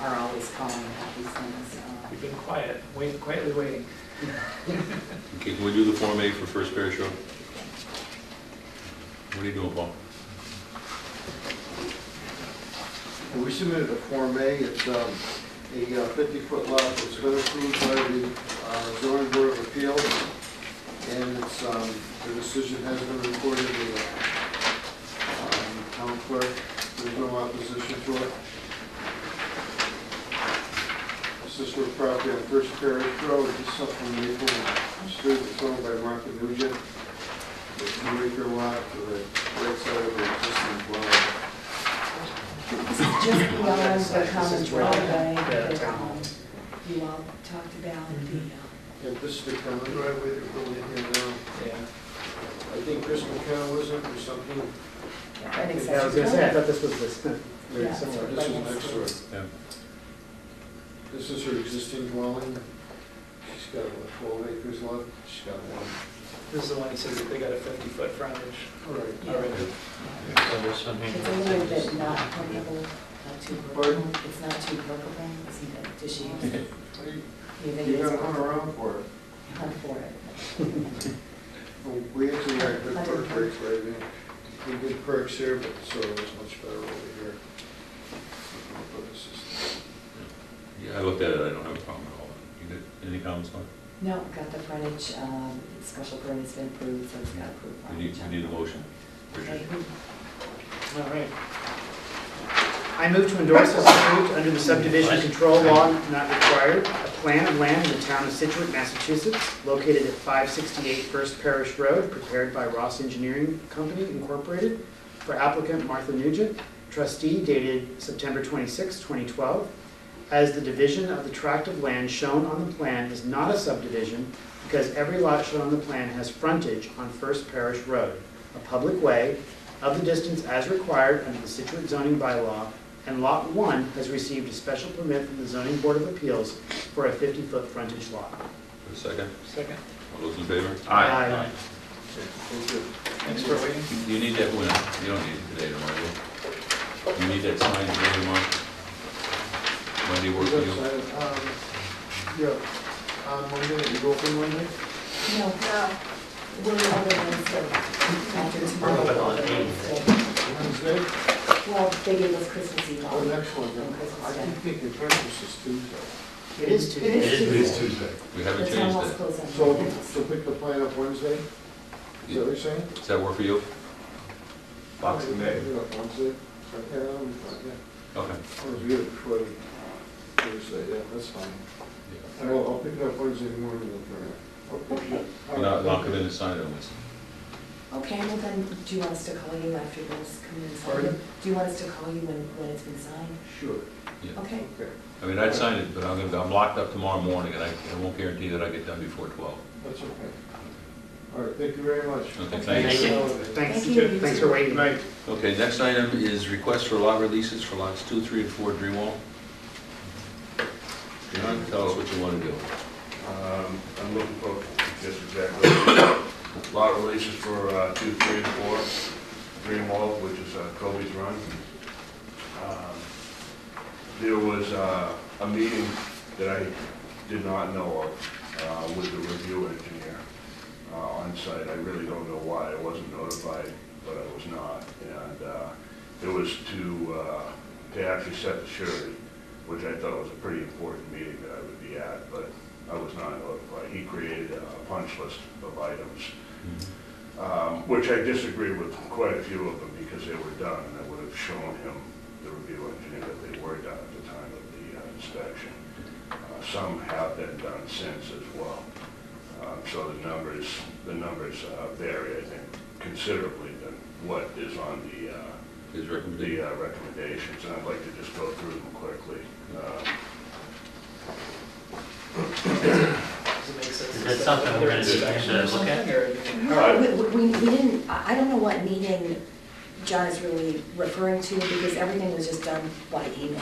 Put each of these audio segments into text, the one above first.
calling about these things. uh, We've been quiet, wait, quietly waiting. Okay, can we do the Form A for First Parish Road? What are you doing, Paul? Well, We submitted a Form A, it's um, a uh, 50-foot lot that's been approved by the uh, zoning board of appeals, and it's, um, the decision has been recorded in the um, town clerk, there's no opposition to it. This is for property on First Parish Road, it's supplemental, street that's owned by Martha Nugent, the two-acre lot to the right side of the existing dwelling. This is just beyond the common driveway Yeah. that um, you all talked about, the, uh, Yeah, this is the common driveway they're building here now. Yeah. I think Chris McCann was in or something. that accessory. Yeah, I was gonna say, I building. thought this was this, very Yeah. similar. This is next door. Yeah. This is her existing dwelling. She's got, what, twelve acres left? She's got one. This is the one he says that they got a 50-foot frontage All right. Yeah. already. It's a little bit not permeable, not too Pardon? workable, it's not too workable, isn't it? Does she use it? Well, you- You think You it's gotta hunt around for it. hunt for it? Well, We actually got good perk rates right now. We did perks here, but the soil is much better over here. But this is- Yeah, I looked at it, I don't have a problem at all. You got any comments on it? No, got the frontage, um, special permit's been approved, so it's got approved We need, frontage. we need a motion. Okay, Richard. who- All right. I move to endorse as approved under the subdivision control law not required, a plan of land in the town of Situate, Massachusetts, located at 568 First Parish Road, prepared by Ross Engineering Company Incorporated, for applicant Martha Nugent, trustee dated September 26, 2012, as the division of the tract of land shown on the plan is not a subdivision because every lot shown on the plan has frontage on First Parish Road, a public way, of the distance as required under the Situate zoning bylaw, and Lot 1 has received a special permit from the Zoning Board of Appeals for a 50-foot frontage lot. For a second, Second. all those in favor? Aye. Thank you. Thanks for waiting. You need that when, you don't need it today, tomorrow. You need that signed today, tomorrow? Monday work Is for that you? signed? Um, Yeah, on Monday, you go open Monday? No, we're over Wednesday, after We're tomorrow. over Wednesday. Wednesday? Well, they gave us Christmas Eve Oh, off. next one, yeah. I keep thinking Christmas is Tuesday. It is It Tuesday. is Tuesday. We haven't It's changed almost that. closed on So, Christmas. so pick the plan up Wednesday? Is that what you're saying? Does that work for you? Boxing Day. Wednesday? Okay, I'm fine, yeah. Okay. I was good before the Thursday, yeah, that's fine. Yeah. And I'll, I'll pick it up Wednesday morning, I'll turn it. Okay, And I'll, and I'll come in and sign it on this. okay, well then, do you want us to call you after this, come in and sign it? Pardon? Do you want us to call you when, when it's been signed? Sure, Yeah. Okay, okay, I mean, I'd sign it, but I'm gonna, I'm locked up tomorrow morning and I, I won't guarantee that I get done before twelve. that's okay. All right, thank you very much. Okay, Thank thanks. you. Thanks, Thank you. thanks for waiting. Okay, next item is request for lot releases for lots two, three, and four, Dreamwall. John, tell us what you wanna do. Um, I'm looking for, just exactly, a lot of releases for uh, two, three, and four, Greenwald, which is uh, Kobe's Run. Um, There was uh, a meeting that I did not know of uh, with the review engineer uh, on site. I really don't know why I wasn't notified, but I was not. And uh, it was to, uh, to actually set the surety, which I thought was a pretty important meeting that I would be at, but I was not notified. He created a punch list of items, um, which I disagree with quite a few of them because they were done, and I would have shown him, the review engineer, that they were done at the time of the uh, inspection. Uh, Some have been done since as well. Um, So the numbers, the numbers uh, vary, I think, considerably than what is on the, uh, His the recommendation. uh, recommendations, and I'd like to just go through them quickly. Um, Does it make sense? Is that something we're Another gonna need to look at? inspection or something, or- No, we, we, we didn't, I I don't know what meeting John is really referring to, because everything was just done by email.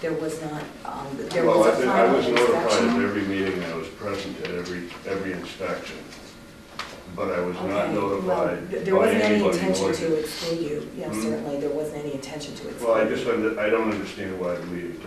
There was not, um, there Well, was I a think I final was notified at inspection. every meeting, I was present at every, every inspection, but I was not Okay, well, notified th- There by wasn't any anybody. intention more- to exclude you, yeah, Hmm? certainly, there wasn't any intention to exclude. Well, I you. just, under- I don't understand why the meeting